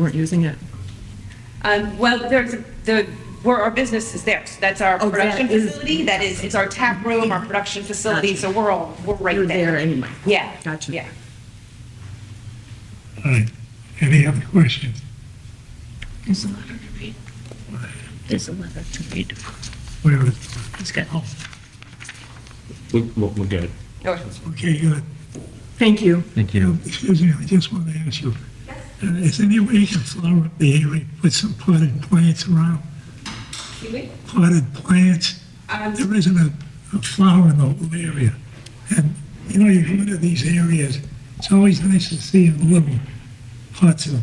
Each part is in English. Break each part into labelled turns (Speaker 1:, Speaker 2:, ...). Speaker 1: weren't using it.
Speaker 2: Um, well, there's, the, where our business is there. So that's our
Speaker 1: Oh, that
Speaker 2: production
Speaker 1: is-
Speaker 2: facility. That is, it's our tap room, our production facility. So we're all, we're
Speaker 1: You're
Speaker 2: right
Speaker 1: there
Speaker 2: there.
Speaker 1: anyway.
Speaker 2: Yeah.
Speaker 1: Gotcha.
Speaker 2: Yeah.
Speaker 3: All right, any other questions?
Speaker 4: There's a letter to read. There's a letter to read.
Speaker 3: Where is,
Speaker 4: He's got,
Speaker 3: oh,
Speaker 5: We're, we're good.
Speaker 2: Okay.
Speaker 3: okay, good.
Speaker 1: Thank you.
Speaker 5: Thank
Speaker 3: You know, Excuse me, I just want to ask you, uh, is any way you can flower up the area with some potted plants around? Potted plants?
Speaker 2: Um,
Speaker 3: There isn't a, a flower in the whole area. And, you know, you go into these areas, it's always nice to see a little pots of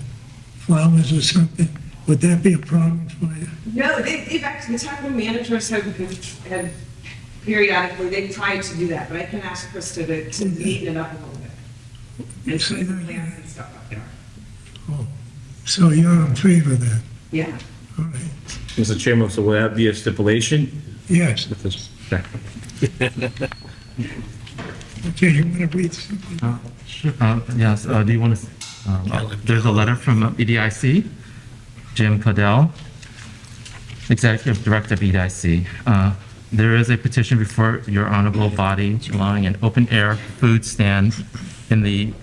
Speaker 3: flowers or something. Would that be a problem for you?
Speaker 6: No, they, they've actually, the town managers have, have- have periodically, they've tried to do that, but I can ask Krista to, to neaten it up a little bit. And
Speaker 3: Say
Speaker 6: put some
Speaker 3: that again.
Speaker 6: plants and stuff up there.
Speaker 3: Oh, So you're in favor of that,
Speaker 6: Yeah.
Speaker 3: all right?
Speaker 5: Mr. Chairman, so will that be a stipulation?
Speaker 3: Yes,
Speaker 5: If it's-
Speaker 3: okay, you want to read something?
Speaker 7: Uh, Yes, uh, do you want to, there's a letter from uh, E EDIC, Jim Cladell, Executive Director of E EDIC. Uh, There is a petition before your honorable body allowing an open-air food stand in the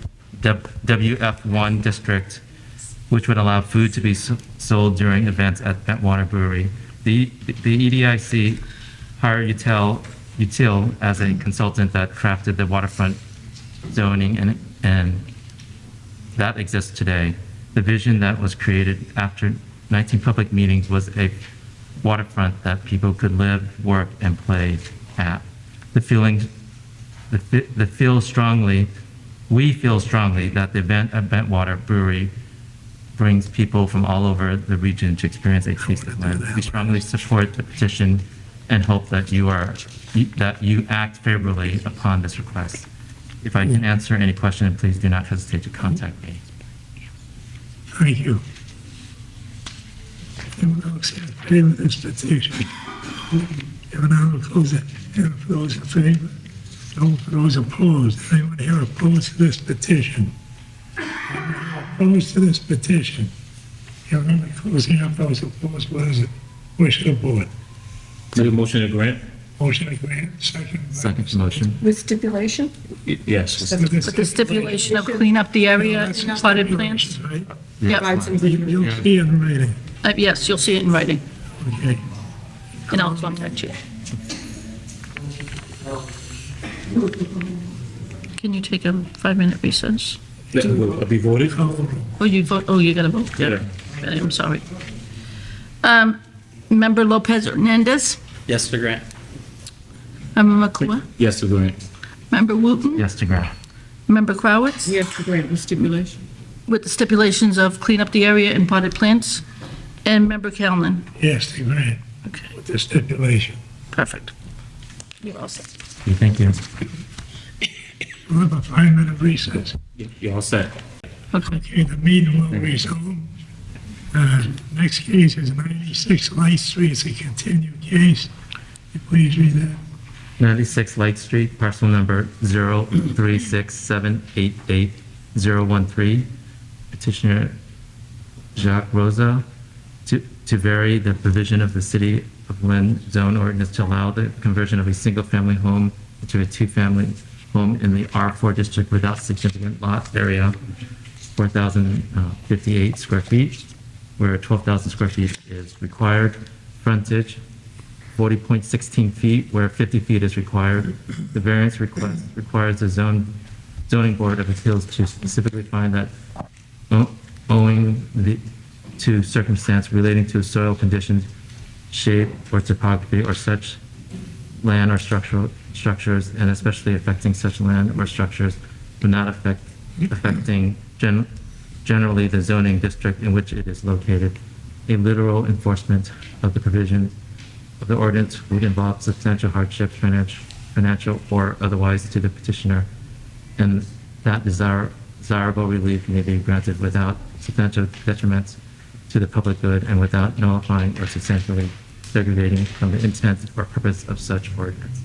Speaker 7: WF1 district, which would allow food to be s- sold during events at Bentwater Brewery. The the E EDIC hired Util Util as a consultant that crafted the waterfront zoning and, and that exists today. The vision that was created after 19 public meetings was a waterfront that people could live, work, and play at. The feeling, the, fe- the feel strongly, we feel strongly that the event at Bentwater Brewery brings people from all over the region to experience a taste of land. We strongly support the petition and hope that you are, that you act favorably upon this request. If I can answer any question, please do not hesitate to contact me.
Speaker 3: Thank you. Anyone else in favor of this petition? Anyone out oppose it? Anyone for those in favor? No for those opposed? Anyone here opposed to this petition? Anyone Opposed to this petition? Anyone in the closing up those opposed? What is it? Wish of the board.
Speaker 5: Make a motion to grant?
Speaker 3: Motion to grant, second. by
Speaker 7: Second
Speaker 3: Mr.
Speaker 7: motion.
Speaker 1: With stipulation?
Speaker 5: Y- Yes.
Speaker 3: With
Speaker 4: with the stipulation of clean up the area
Speaker 3: That's the
Speaker 4: and potted plants.
Speaker 3: stipulation, right?
Speaker 4: Yep,
Speaker 3: You- You'll see in writing,
Speaker 4: Uh, yes, you'll see it in writing,
Speaker 3: okay?
Speaker 4: and I'll contact you. Can you take a five-minute recess?
Speaker 5: That will be voted?
Speaker 3: Call the roll.
Speaker 4: Oh, you vote, oh, you gotta vote.
Speaker 5: Yeah.
Speaker 4: Okay, I'm sorry. Um, Member Lopez Hernandez,
Speaker 8: Yes to grant.
Speaker 4: Member McClure,
Speaker 5: Yes, to grant.
Speaker 4: Member Wooten,
Speaker 7: Yes to grant.
Speaker 4: Member Crowitz.
Speaker 1: Yes, to grant with stipulation.
Speaker 4: with the stipulations of clean up the area and potted plants, and Member Kalman.
Speaker 3: Yes, to grant,
Speaker 4: Okay,
Speaker 3: with the stipulation.
Speaker 4: perfect. You're all set.
Speaker 7: Thank you.
Speaker 3: We'll have a five-minute recess.
Speaker 5: You're all set.
Speaker 4: Okay.
Speaker 3: Okay, the meeting will resume. Uh, Next case is 96 Light Street, it's a continued case. Please read that.
Speaker 7: 96 Light Street, parcel number 036788013. Petitioner Jacques Rosa to to vary the provision of the City of Lynn zone ordinance to allow the conversion of a single-family home into a two-family home in the R4 district without significant lot area, 4,058 square feet, where 12,000 square feet is required, frontage 40.16 feet where 50 feet is required. The variance request requires the zone, zoning board of appeals to specifically find that o- owing the, to circumstance relating to soil conditions, shape or topography or such land or structural, structures, and especially affecting such land or structures would not affect, affecting gen, generally the zoning district in which it is located. A literal enforcement of the provision of the ordinance would involve substantial hardships, financial, financial or otherwise to the petitioner, and that desire, desirable relief may be granted without substantial detriments to the public good and without nullifying or substantially degrading from the intent or purpose of such ordinance.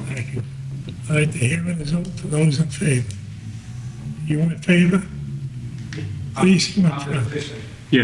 Speaker 3: Thank you. All right, the hearing is open for those in favor. You in favor? Please come up front.
Speaker 9: Opposition.